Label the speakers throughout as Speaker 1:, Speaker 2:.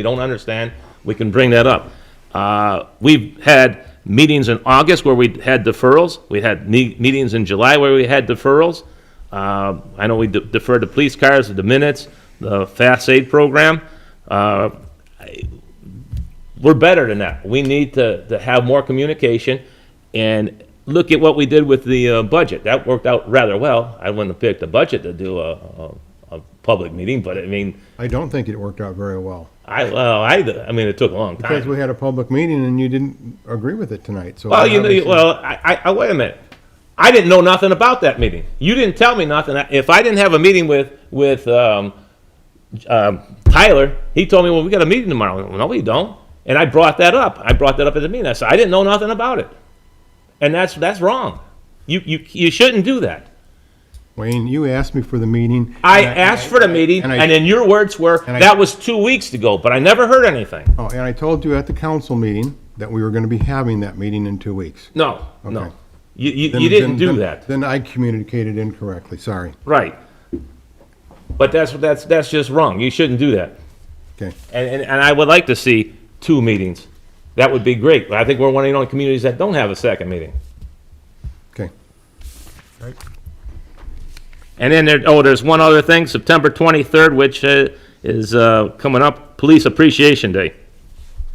Speaker 1: we don't understand, we can bring that up. Uh, We've had meetings in August where we had deferrals, we had me- meetings in July where we had deferrals. Uh, I know we de- deferred the police cars, the minutes, the fast aid program. Uh, I- We're better than that. We need to, to have more communication and look at what we did with the uh, budget. That worked out rather well. I wouldn't have picked the budget to do a, a, a public meeting, but I mean,
Speaker 2: I don't think it worked out very well,
Speaker 1: I, well, I, I mean, it took a long time.
Speaker 2: because we had a public meeting and you didn't agree with it tonight, so.
Speaker 1: Well, you know,
Speaker 2: obviously-
Speaker 1: well, I, I- I, wait a minute. I didn't know nothing about that meeting. You didn't tell me nothing. If I didn't have a meeting with, with, um, um, Tyler, he told me, well, we got a meeting tomorrow. Well, no, we don't. And I brought that up. I brought that up at the meeting. I said, I didn't know nothing about it. And that's, that's wrong. You, you, you shouldn't do that.
Speaker 2: Wayne, you asked me for the meeting.
Speaker 1: I
Speaker 2: and
Speaker 1: asked for the
Speaker 2: and I-
Speaker 1: meeting
Speaker 2: and I-
Speaker 1: and then your words were,
Speaker 2: and I-
Speaker 1: that was two weeks ago, but I never heard anything.
Speaker 2: Oh, and I told you at the council meeting that we were gonna be having that meeting in two weeks.
Speaker 1: No,
Speaker 2: Okay.
Speaker 1: no. You, you,
Speaker 2: Then-
Speaker 1: you didn't
Speaker 2: then-
Speaker 1: do
Speaker 2: then-
Speaker 1: that.
Speaker 2: Then I communicated incorrectly, sorry,
Speaker 1: Right. But that's, that's, that's just wrong. You shouldn't do that.
Speaker 2: okay.
Speaker 1: And, and, and I would like to see two meetings. That would be great. But I think we're one of the only communities that don't have a second meeting.
Speaker 2: Okay.
Speaker 1: And then there, oh, there's one other thing, September 23rd, which uh, is uh, coming up, Police Appreciation Day.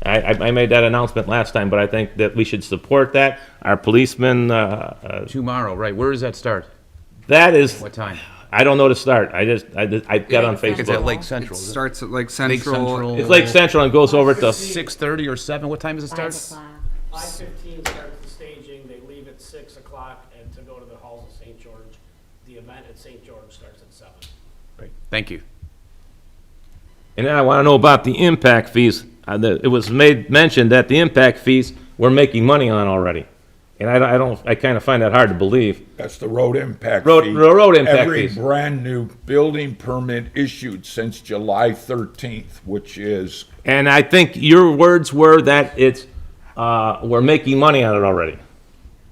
Speaker 1: I, I I made that announcement last time, but I think that we should support that. Our policemen, uh, uh,
Speaker 3: Tomorrow, right, where does that start?
Speaker 1: that is,
Speaker 3: What time?
Speaker 1: I don't know to start. I just, I just- I got on
Speaker 3: It's at
Speaker 1: Facebook.
Speaker 3: Lake Central.
Speaker 4: It
Speaker 3: is it?
Speaker 4: starts at Lake
Speaker 3: Lake
Speaker 4: Central.
Speaker 1: It's Lake Central and goes over to,
Speaker 3: Six thirty or seven, what time does it
Speaker 5: Five
Speaker 3: start?
Speaker 5: o'clock.
Speaker 6: Five fifteen starts the staging, they leave at six o'clock, and to go to the halls of St. George, the event at St. George starts at seven.
Speaker 3: Thank you.
Speaker 1: and then I want to know about the impact fees. Uh, the- It was made, mentioned that the impact fees, we're making money on already. And I don't- I don't, I kind of find that hard to believe.
Speaker 7: That's the road impact
Speaker 1: Road-
Speaker 7: fee.
Speaker 1: road impact
Speaker 7: Every
Speaker 1: fees.
Speaker 7: brand-new building permit issued since July 13th, which is,
Speaker 1: And I think your words were that it's, uh, we're making money on it already.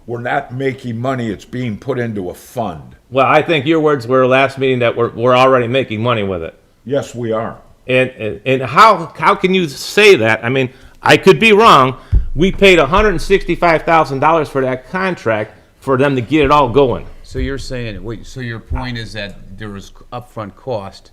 Speaker 7: we're not making money, it's being put into a fund.
Speaker 1: Well, I think your words were last meeting that we're, we're already making money with it.
Speaker 7: Yes, we are.
Speaker 1: And, and, and how, how can you say that? I mean, I could be wrong. We paid hundred and sixty-five thousand dollars for that contract for them to get it all going.
Speaker 3: So you're saying, wait, so your point is that there is upfront cost,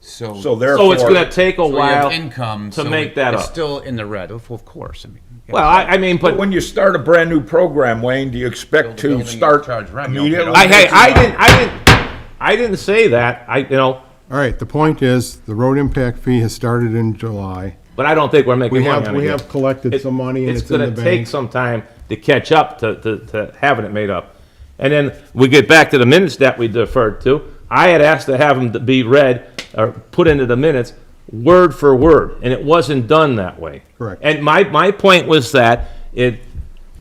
Speaker 3: so.
Speaker 7: So
Speaker 1: So it's gonna
Speaker 7: therefore,
Speaker 1: take a
Speaker 3: so you have
Speaker 1: while.
Speaker 3: Income.
Speaker 1: to
Speaker 3: so
Speaker 1: make
Speaker 3: it-
Speaker 1: that
Speaker 3: it's
Speaker 1: up.
Speaker 3: Still in the red, of of course, I mean. yeah.
Speaker 1: Well, I, I mean, but,
Speaker 7: when you start a brand-new program, Wayne, do you expect
Speaker 3: Build a
Speaker 7: to
Speaker 3: building,
Speaker 7: start
Speaker 3: charge rent, you don't pay no
Speaker 7: immediately?
Speaker 1: I, hey, I didn't, I didn't, I didn't say that. I, you know,
Speaker 2: All right, the point is, the road impact fee has started in July.
Speaker 1: but I don't think we're making
Speaker 2: We
Speaker 1: money
Speaker 2: have,
Speaker 1: on it
Speaker 2: we
Speaker 1: yet.
Speaker 2: have collected
Speaker 1: It-
Speaker 2: some money and it's in the
Speaker 1: gonna take
Speaker 2: bank.
Speaker 1: some time to catch up to, to, to having it made up. And then we get back to the minutes that we deferred to. I had asked to have them to be read or put into the minutes word for word, and it wasn't done that way.
Speaker 2: Correct.
Speaker 1: And my, my point was that it,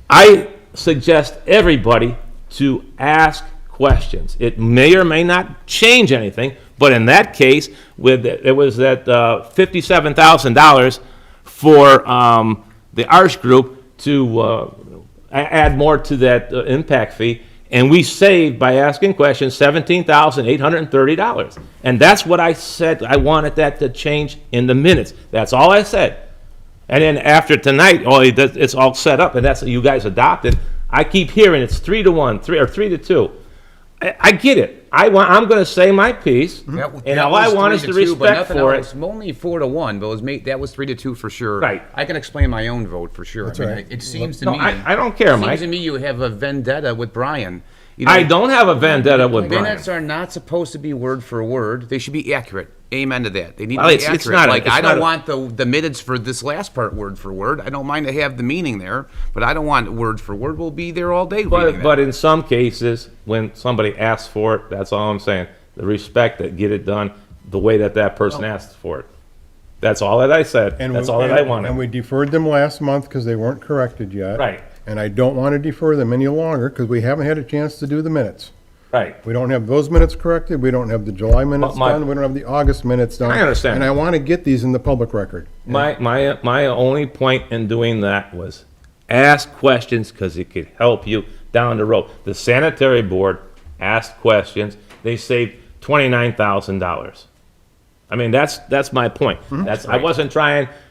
Speaker 1: I suggest everybody to ask questions. It may or may not change anything, but in that case, with, it was that uh, $57,000 for um, the Arts Group to uh, a- add more to that uh, impact fee, and we saved by asking questions $17,830. And that's what I said, I wanted that to change in the minutes. That's all I said. And then after tonight, all it does- it's all set up, and that's what you guys adopted. I keep hearing it's three to one, three or three to two. I, I get it. I want. I'm going to say my piece,
Speaker 3: That w-
Speaker 1: and
Speaker 3: that
Speaker 1: all I
Speaker 3: was
Speaker 1: want
Speaker 3: three
Speaker 1: is the
Speaker 3: to two, but
Speaker 1: respect
Speaker 3: nothing
Speaker 1: for
Speaker 3: else.
Speaker 1: it.
Speaker 3: Only four to one, but it was made, that was three to two for sure.
Speaker 1: Right.
Speaker 3: I can explain my own vote for sure. I mean,
Speaker 2: right.
Speaker 3: I- It seems to
Speaker 1: No,
Speaker 3: me.
Speaker 1: I, I don't care,
Speaker 3: Seems
Speaker 1: Mike.
Speaker 3: to me you have a vendetta with Brian. You know,
Speaker 1: I don't have a vendetta with Brian.
Speaker 3: Minutes are not supposed to be word for word. They should be accurate. Amen to that. They need
Speaker 1: Well,
Speaker 3: to be
Speaker 1: it's-
Speaker 3: accurate.
Speaker 1: it's not a-
Speaker 3: like
Speaker 1: it's
Speaker 3: I
Speaker 1: not
Speaker 3: don't
Speaker 1: a-
Speaker 3: want the the minutes for this last part word for word. I don't mind to have the meaning there, but I don't want word for word. We'll be there all day. reading
Speaker 1: But,
Speaker 3: that.
Speaker 1: but in some cases, when somebody asks for it, that's all I'm saying. The respect that get it done the way that that person
Speaker 3: Oh.
Speaker 1: asked for it. That's all that I said.
Speaker 2: And
Speaker 1: that's
Speaker 2: we-
Speaker 1: all that I
Speaker 2: and-
Speaker 1: wanted.
Speaker 2: And we deferred them last month because they weren't corrected yet.
Speaker 1: Right.
Speaker 2: And I don't want to defer them any longer because we haven't had a chance to do the minutes.
Speaker 1: right.
Speaker 2: We don't have those minutes corrected, we don't have the July minutes
Speaker 1: my-
Speaker 2: done, we don't have the August minutes done.
Speaker 1: I understand.
Speaker 2: And I want to get these in the public record.
Speaker 1: My, my, my only point in doing that was ask questions because it could help you down the road. The sanitary board asked questions. They saved twenty-nine thousand dollars. I mean, that's, that's my point. That's, I wasn't trying